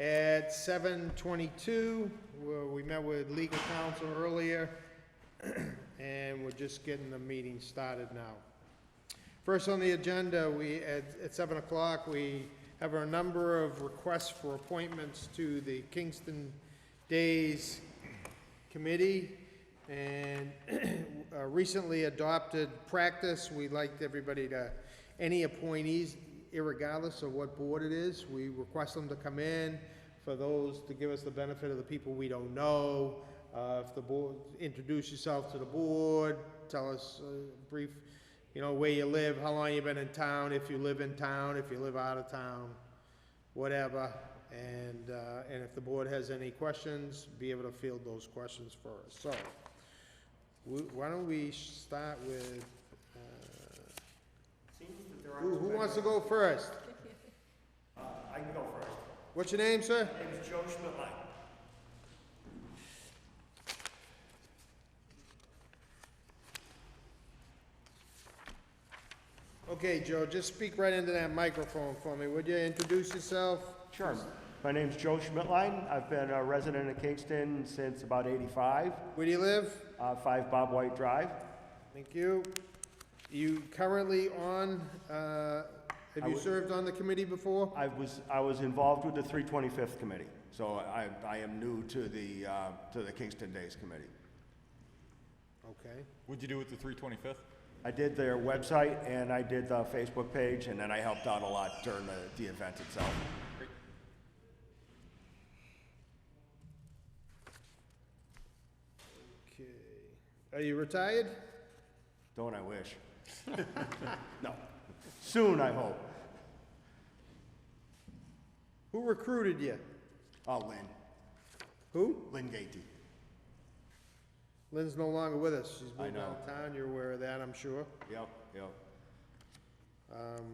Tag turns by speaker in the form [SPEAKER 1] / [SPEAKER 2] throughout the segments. [SPEAKER 1] At seven twenty-two, we met with legal counsel earlier, and we're just getting the meeting started now. First on the agenda, we, at, at seven o'clock, we have a number of requests for appointments to the Kingston Days Committee. And uh, recently adopted practice, we liked everybody to, any appointees, irregardless of what board it is, we request them to come in for those, to give us the benefit of the people we don't know. Uh, if the board, introduce yourself to the board, tell us a brief, you know, where you live, how long you been in town, if you live in town, if you live out of town, whatever. And, uh, and if the board has any questions, be able to field those questions for us. So, wh- why don't we start with, uh, who, who wants to go first?
[SPEAKER 2] I can go first.
[SPEAKER 1] What's your name, sir?
[SPEAKER 2] My name is Joe Schmidtline.
[SPEAKER 1] Okay, Joe, just speak right into that microphone for me, would you? Introduce yourself.
[SPEAKER 2] Sure. My name's Joe Schmidtline. I've been a resident of Kingston since about 85,
[SPEAKER 1] Where do you live?
[SPEAKER 2] uh, 5 Bob White Drive.
[SPEAKER 1] Thank you. You currently on, uh, have
[SPEAKER 2] I
[SPEAKER 1] you
[SPEAKER 2] would-
[SPEAKER 1] served on the committee before?
[SPEAKER 2] I was, I was involved with the 325th Committee, so I, I am new to the, uh, to the Kingston Days Committee.
[SPEAKER 1] Okay.
[SPEAKER 3] What'd you do with the 325th?
[SPEAKER 2] I did their website, and I did the Facebook page, and then I helped out a lot during the, the event itself.
[SPEAKER 1] Okay. Are you retired?
[SPEAKER 2] Don't I wish? No. Soon, I hope.
[SPEAKER 1] Who recruited you?
[SPEAKER 2] Oh, Lynn,
[SPEAKER 1] Who?
[SPEAKER 2] Lynn Gaty.
[SPEAKER 1] Lynn's no longer with us. She's
[SPEAKER 2] I
[SPEAKER 1] moved
[SPEAKER 2] know.
[SPEAKER 1] out of town. You're aware of that, I'm sure.
[SPEAKER 2] Yep, yep.
[SPEAKER 1] Um,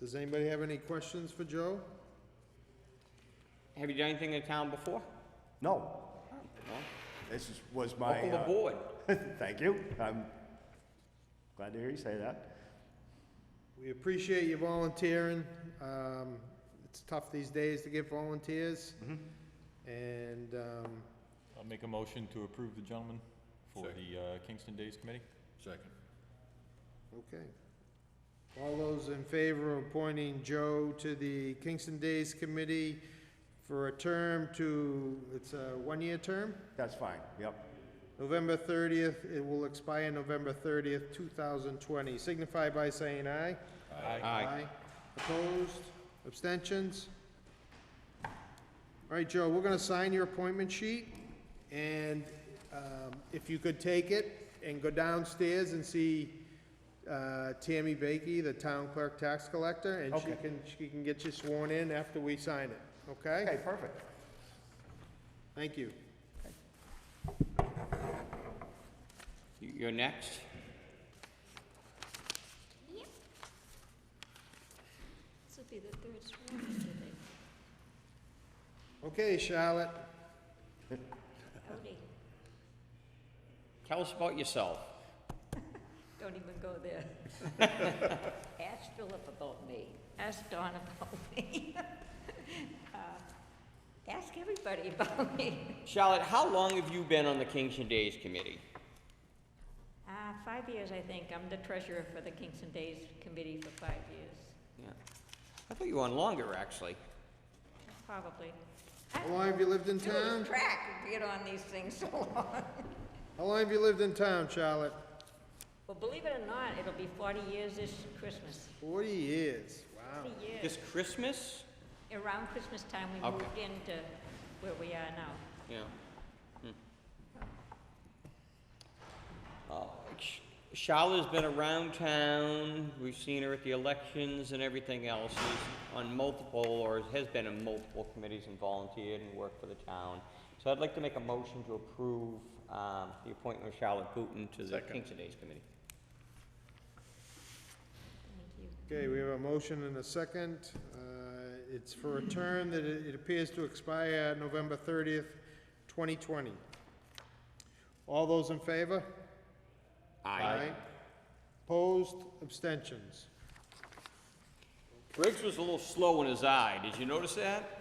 [SPEAKER 1] does anybody have any questions for Joe?
[SPEAKER 4] Have you done anything in town before?
[SPEAKER 2] No,
[SPEAKER 4] No?
[SPEAKER 2] This is, was my.
[SPEAKER 4] Welcome
[SPEAKER 2] uh,
[SPEAKER 4] aboard.
[SPEAKER 2] Thank you. I'm glad to hear you say that.
[SPEAKER 1] We appreciate you volunteering. Um, it's tough these days to get volunteers.
[SPEAKER 2] Mm-hmm.
[SPEAKER 1] And, um,
[SPEAKER 3] I'll make a motion to approve the gentleman for the uh, Kingston Days Committee. Second.
[SPEAKER 1] okay. All those in favor of appointing Joe to the Kingston Days Committee for a term to, it's a one-year term?
[SPEAKER 2] That's fine. Yep.
[SPEAKER 1] November thirtieth, it will expire November thirtieth, two thousand twenty. Signify by saying aye. Opposed? Abstentions? All right, Joe, we're gonna sign your appointment sheet, and, um, if you could take it and go downstairs and see, uh, Tammy Bakey, the town clerk tax collector, and she
[SPEAKER 2] Okay.
[SPEAKER 1] can, she can get you sworn in after we sign it, okay?
[SPEAKER 2] Okay, perfect.
[SPEAKER 1] Thank you.
[SPEAKER 4] You- You're next.
[SPEAKER 5] Yep. This would be the third strike, I think.
[SPEAKER 1] Okay, Charlotte,
[SPEAKER 5] Howdy.
[SPEAKER 4] Tell us about yourself.
[SPEAKER 5] Don't even go there. Ask Philip about me. Ask Don about me. Uh, Ask everybody about me.
[SPEAKER 4] Charlotte, how long have you been on the Kingston Days Committee?
[SPEAKER 5] Uh, Five years, I think. I'm the treasurer for the Kingston Days Committee for five years,
[SPEAKER 4] Yeah. I thought you were on longer, actually.
[SPEAKER 5] probably.
[SPEAKER 1] how long have you lived in town?
[SPEAKER 5] Lose track of being on these things so long.
[SPEAKER 1] How long have you lived in town, Charlotte?
[SPEAKER 5] Well, believe it or not, it'll be 40 years this Christmas.
[SPEAKER 1] Forty years, wow.
[SPEAKER 5] 40 years.
[SPEAKER 4] This Christmas?
[SPEAKER 5] Around Christmas time, we
[SPEAKER 4] Okay.
[SPEAKER 5] moved into where we are now.
[SPEAKER 4] Yeah. Hmm. Oh, Sh- Charlotte's been around town. We've seen her at the elections and everything else. She's on multiple, or has been in multiple committees and volunteered and worked for the town. So I'd like to make a motion to approve um, the appointment of Charlotte Booton to the Kingston Days Committee.
[SPEAKER 5] Thank you.
[SPEAKER 1] Okay, we have a motion and a second. Uh, It's for a term that it it appears to expire November thirtieth, twenty twenty. All those in favor? Opposed, abstentions?
[SPEAKER 4] Briggs was a little slow in his eye. Did you notice that?